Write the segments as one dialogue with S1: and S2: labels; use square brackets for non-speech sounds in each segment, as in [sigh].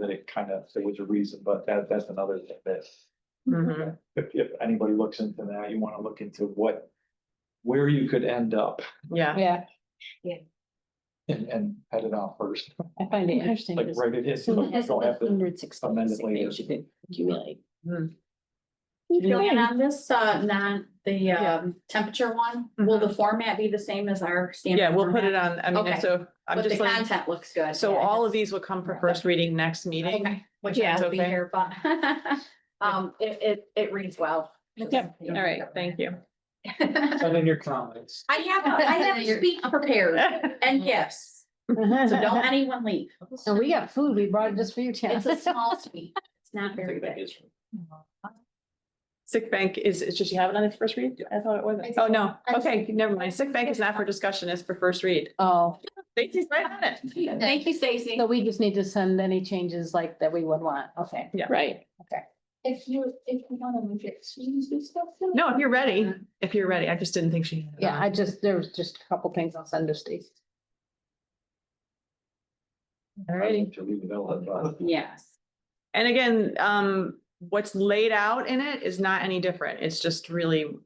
S1: that it kind of, there was a reason, but that, that's another thing that
S2: Mm-hmm.
S3: Mm-hmm.
S1: if, if anybody looks into that, you want to look into what, where you could end up
S3: yeah,
S4: Yeah,
S1: and, and head it out first,
S4: I find it interesting.
S1: like
S4: because
S1: right it is. so
S4: someone
S1: you
S4: has
S1: don't have to-
S4: 166
S1: amend it later.
S4: pages you could accumulate.
S2: So,
S4: Yeah.
S2: And on this, uh, non, the,
S4: Yeah.
S2: um, temperature one, will the format be the same as our standard?
S3: Mm-hmm. yeah, we'll put it on,
S2: format?
S3: I mean,
S2: Okay.
S3: so I'm
S2: But the
S3: just like,
S2: content looks good.
S3: so
S2: yeah,
S3: all of
S2: that's-
S3: these will come for first reading next meeting.
S2: Okay, Which I
S3: Yeah.
S2: will be
S3: Okay.
S2: here, but, [laughs] um, it, it, it reads well.
S3: Yep, all right, thank you.
S2: I
S5: Send in your comments.
S2: have, [laughs] I have to speak prepared
S3: [laughs]
S2: and gifts,
S4: [laughs]
S2: so don't
S4: And
S2: anyone leave.
S4: we got food, we brought it just for you, Chad.
S2: [laughs] It's a small suite. It's not very big.
S3: Sick bank is, is- did you have it on its first read? I thought it wasn't. Oh, no, okay, never mind. Sick bank is not for discussion, it's for first read.
S4: Oh,
S3: Stacy's right on it.
S2: Thank you, Stacy.
S4: so we just need to send any changes like that we would want, okay.
S3: Yeah.
S4: Right.
S5: If you, if you want to reject, students do stuff. too.
S3: No, if you're ready, if you're ready, I just didn't think she. had it
S4: Yeah,
S3: on.
S4: I just, there was just a couple things I'll send to Stacy. Alrighty.
S1: To leave it out, but-
S2: Yes.
S3: And again, um, what's laid out in it is not any different. It's just really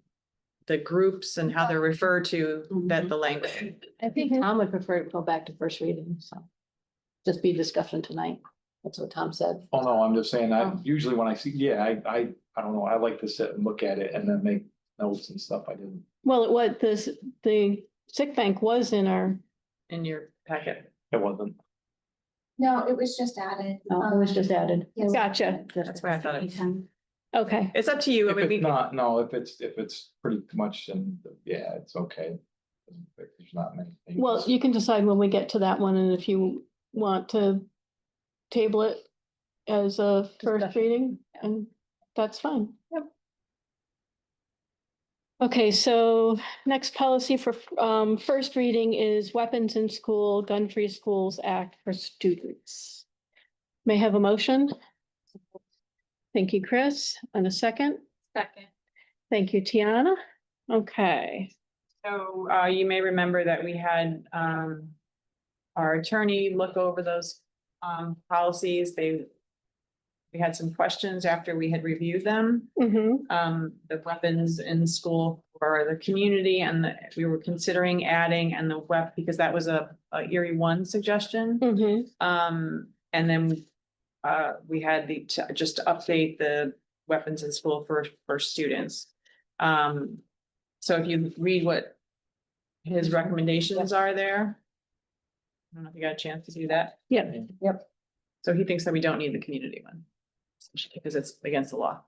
S3: the groups and how they're referred to
S2: Mm-hmm.
S3: that the language.
S4: I think Tom would prefer to go back to first reading, so. Just be discussion tonight. That's what Tom said.
S1: Oh, no, I'm just saying, I,
S4: Oh.
S1: usually when I see, yeah, I, I, I don't know, I like to sit and look at it and then make notes and stuff. I didn't.
S6: Well, it was, this, the sick bank was in our,
S3: in your packet.
S1: It wasn't.
S5: No, it was just added.
S4: No, Oh, it was
S5: um,
S4: just added.
S5: yeah.
S6: gotcha,
S3: That's why I thought it,
S2: Anytime.
S6: okay.
S3: it's up to you. I
S1: If
S3: mean, we-
S1: it's not, no, if it's, if it's pretty much and yeah, it's okay. There's not many. things.
S6: Well, you can decide when we get to that one and if you want to table it as a first
S4: Discussion,
S6: reading, and that's fine. Okay, so next policy for um first reading is Weapons in School, Gun-Free Schools Act for students. May I have a motion? Thank you, Chris, and a second.
S2: Second.
S6: Thank you, Tiana. Okay,
S3: So uh, you may remember that we had um. Our attorney look over those um policies. They. We had some questions after we had reviewed them.
S6: mhm,
S3: um, the weapons in school for the community and the- we were considering adding and the web, because that was a a Erie One suggestion.
S6: mhm,
S3: Um, and then uh, we had the, to- just to update the weapons in school for, for students. Um, so if you read what his recommendations are there. I don't know if you got a chance to do that.
S6: Yep.
S4: Yep.
S3: So he thinks that we don't need the community one. essentially, Because it's against the law.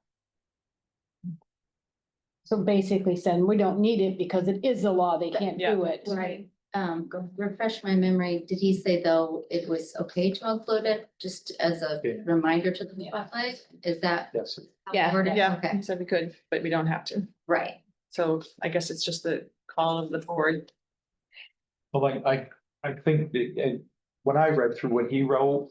S4: So basically saying we don't need it because it is the law. They can't
S3: Yeah.
S4: do it.
S7: Right, um, go refresh my memory, did he say though it was okay to include it, just as a
S1: Yeah.
S7: reminder to the public? Is that?
S1: Yes.
S7: how
S6: Yeah.
S7: it worded?
S3: Yeah,
S7: Okay,
S3: he said we could, but we don't have to.
S7: right.
S3: So I guess it's just the call of the board.
S1: Well, like, I, I think the, and when I read through what he wrote,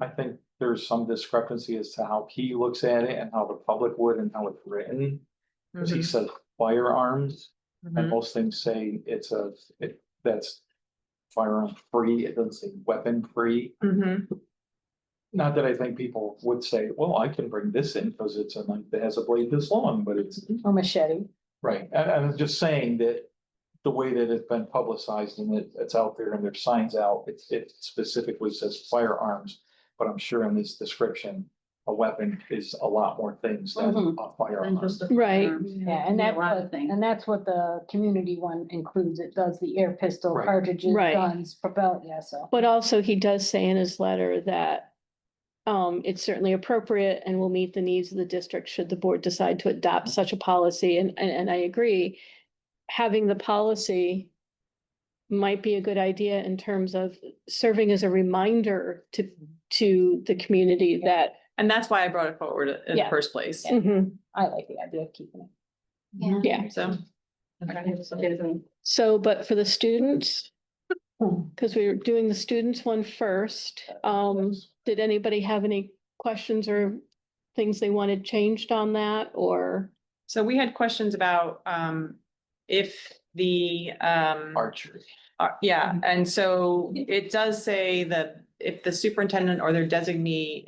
S1: I think there's some discrepancy as to how he looks at it and how the public would and how it's written. Cause
S3: Mm-hmm.
S1: he says firearms and
S3: Mhm.
S1: most things say it's a, it, that's firearm free, it doesn't say weapon free.
S3: Mhm.
S1: Not that I think people would say, well, I can bring this in because it's a knife that has a blade this long, but it's,
S4: Or machete.
S1: right, I, I'm just saying that. The way that it's been publicized and it, it's out there and there's signs out, it, it specifically says firearms. But I'm sure in this description, a weapon is a lot more things than a
S2: Than
S1: firearm.
S2: just a
S6: Right.
S2: form.
S4: Yeah, and
S2: Yeah, a
S4: that's
S2: lot of
S4: what,
S2: things.
S4: and that's what the community one includes. It does the air pistol,
S1: Right.
S4: cartridges,
S6: Right.
S4: guns, propel, yeah, so.
S6: but also he does say in his letter that um, it's certainly appropriate and will meet the needs of the district should the board decide to adopt such a policy, and, and, and I agree. Having the policy might be a good idea in terms of serving as a reminder to, to the community that,
S3: And that's why I brought it forward in the
S4: Yeah.
S3: first place.
S6: Mhm.
S4: I like the idea of keeping it.
S7: Yeah.
S6: yeah.
S3: So. okay.
S6: So, but for the students, because we were doing the students one first, um, did anybody have any questions or things they wanted changed on that or?
S3: So we had questions about um if the um.
S1: Archery.
S3: Uh, yeah, and so it does say that if the superintendent or their designee